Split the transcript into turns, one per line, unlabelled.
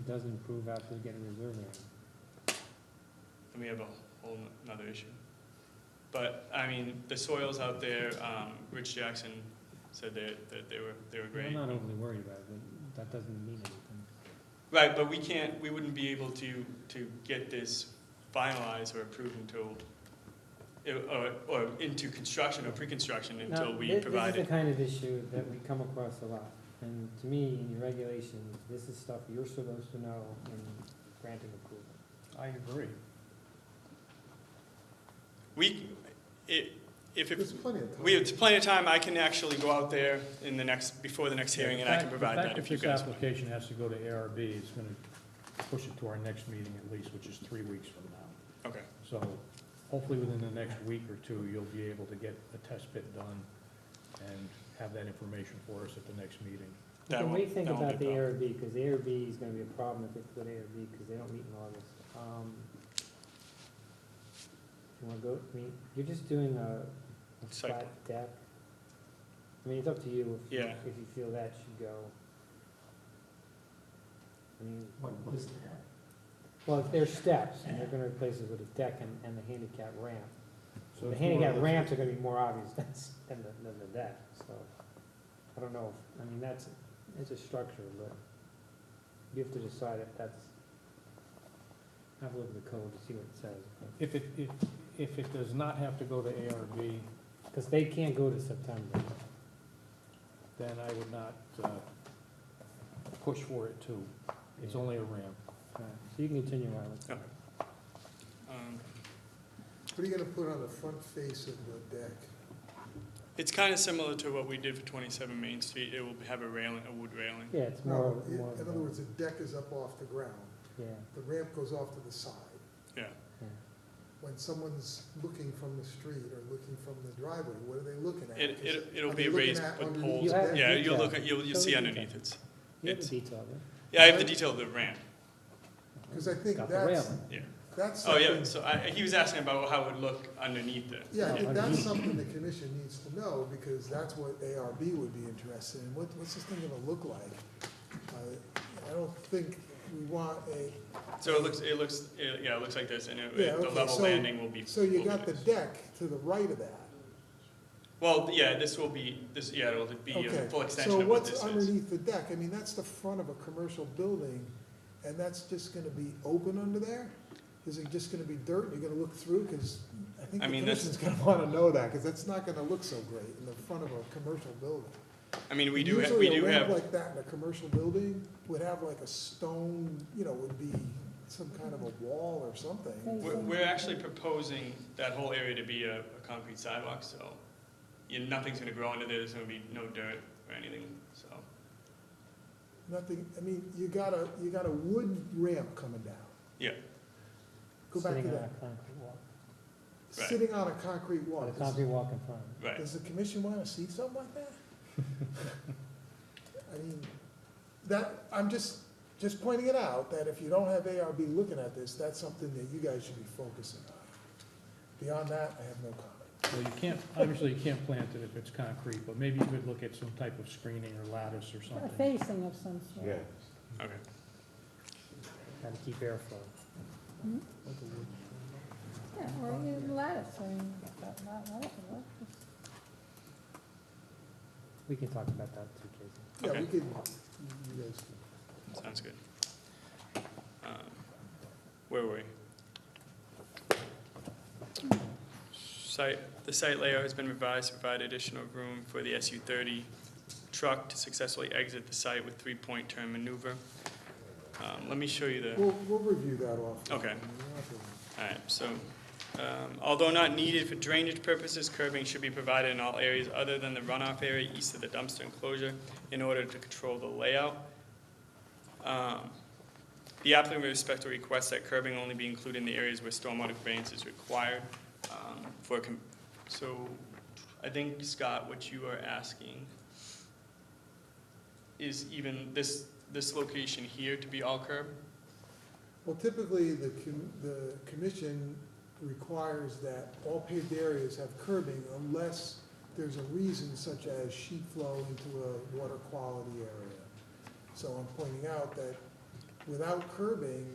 It doesn't improve after you get a reserve area.
then we have a whole another issue. But, I mean, the soils out there, um, Rich Jackson said that, that they were, they were
I'm
great.
not overly worried about it, but that doesn't mean anything.
Right, but we can't, we wouldn't be able to, to get this finalized or approved until, or, or into construction or pre-construction until
Now,
we
thi- This
provide
is
it.
the kind of issue that we come across a lot, and to me, in your regulations, this is stuff you're supposed to know in granting approval.
I agree.
We, it, if,
There's
it-
plenty of time.
we have plenty of time, I can actually go out there in the next, before the next
Yeah,
hearing,
the
and I
fact-
can provide that if you
The
guys
fact
want.
that this application has to go to ARB is going to push it to our next meeting at least, which is three weeks from now.
Okay,
So hopefully within the next week or two, you'll be able to get a test pit done and have that information for us at the next meeting.
That
Can we
won't-
think
that won't
about the
be a problem.
ARB, because the ARB is gonna be a problem if it's with ARB, because they don't meet in August. Um, You wanna go, I mean, you're just doing a a
Site
flat deck. I mean, it's up to you if,
Yeah.
if you feel that should go. I mean, well, if there's steps, and they're gonna replace it with a deck and, and the handicap ramp.
So
The
it's more or
handicap
less-
ramps are gonna be more obvious than, s- than the, than the deck, so, I don't know, if- I mean, that's, it's a structure, but you have to decide if that's, have a look at the code to see what it says,
If it, if, if it does not have to go to ARB,
because they can't go to September.
then I would not uh, push for it too. It's only a ramp.
All right, So you can continue on with
Okay. Um,
What are you gonna put on the front face of the deck?
It's kind of similar to what we did for 27 Main Street. It will have a railing, a wood railing.
Yeah, it's more,
No,
more, of
in other
a-
words, the deck is up off the ground,
yeah,
the ramp goes off to the side.
Yeah.
yeah.
When someone's looking from the street or looking from the driveway, what are they looking at?
It,
'Cause
it,
are
it'll
they
be
looking
raised
at
with
underneath
poles.
the
have-
deck?
Yeah, you'll
detail.
look, at- you'll, you'll
Show
see
the
underneath it.
You have the
It's-
detail there.
Yeah, I have the detail of the ramp,
Cause I think
Got the
that's,
railing.
yeah.
that's
Oh,
something.
yeah, so I, he was asking about how it would look underneath it.
Yeah, I think that's
Underneath.
something the commission needs to know, because that's what ARB would be interested in, what, what's this thing gonna look like? I- I don't think we want a,
So it looks, it looks, it- yeah, it looks like this, and it-
Yeah,
it- the
okay,
level
so-
landing will be.
so you
will be
got the
this.
deck to the right of that.
Well, yeah, this will be, this, yeah, it'll be a
Okay,
full extension of what this
So what's
is.
underneath the deck? I mean, that's the front of a commercial building, and that's just gonna be open under there? Is it just gonna be dirt and you're gonna look through? Because I think
I
the
mean, that's-
commission's gonna wanna know that, because that's not gonna look so great in the front of a commercial building.
I mean, we do, ha- we do
Usually a ramp
have,
like that in a commercial building would have like a stone, you know, would be some kind of a wall or something.
we're, we're actually proposing that whole area to be a, a concrete sidewalk, so you, nothing's gonna grow under there, there's gonna be no dirt or anything, so.
Nothing, I mean, you got a, you got a wood ramp coming down.
Yeah.
Go back to
Sitting on
that.
a concrete walk,
Right.
Sitting on a concrete
with
wall.
a concrete walk in front.
Right.
Does the commission want to see something like that? I mean, that, I'm just, just pointing it out, that if you don't have ARB looking at this, that's something that you guys should be focusing on. Beyond that, I have no comment.
Well, you can't, obviously you can't plant it if it's concrete, but maybe you could look at some type of screening or lattice or
A
something.
facing of some sort.
Okay.
Gotta keep airflow.
Yeah, or a lattice, I mean, that lat- lattice would work.
We can talk about that too, Casey.
Yeah, we
Okay.
could, you- you guys can.
Sounds good. Um, Where were we? Site, the site layout has been revised to provide additional room for the SU thirty truck to successfully exit the site with three-point turn maneuver. Um, let me show you the.
We'll, we'll review that off.
Okay. Alright, so, um, although not needed for drainage purposes, curbing should be provided in all areas other than the runoff area east of the dumpster enclosure in order to control the layout. Um, The applicant will respect to request that curbing only be included in the areas where stormwater conveyance is required, um, for, com- so, I think, Scott, what you are asking is even this, this location here to be all curb?
Well, typically, the, com- the commission requires that all paved areas have curbing unless there's a reason such as sheet flow into a water quality area. So I'm pointing out that without curbing,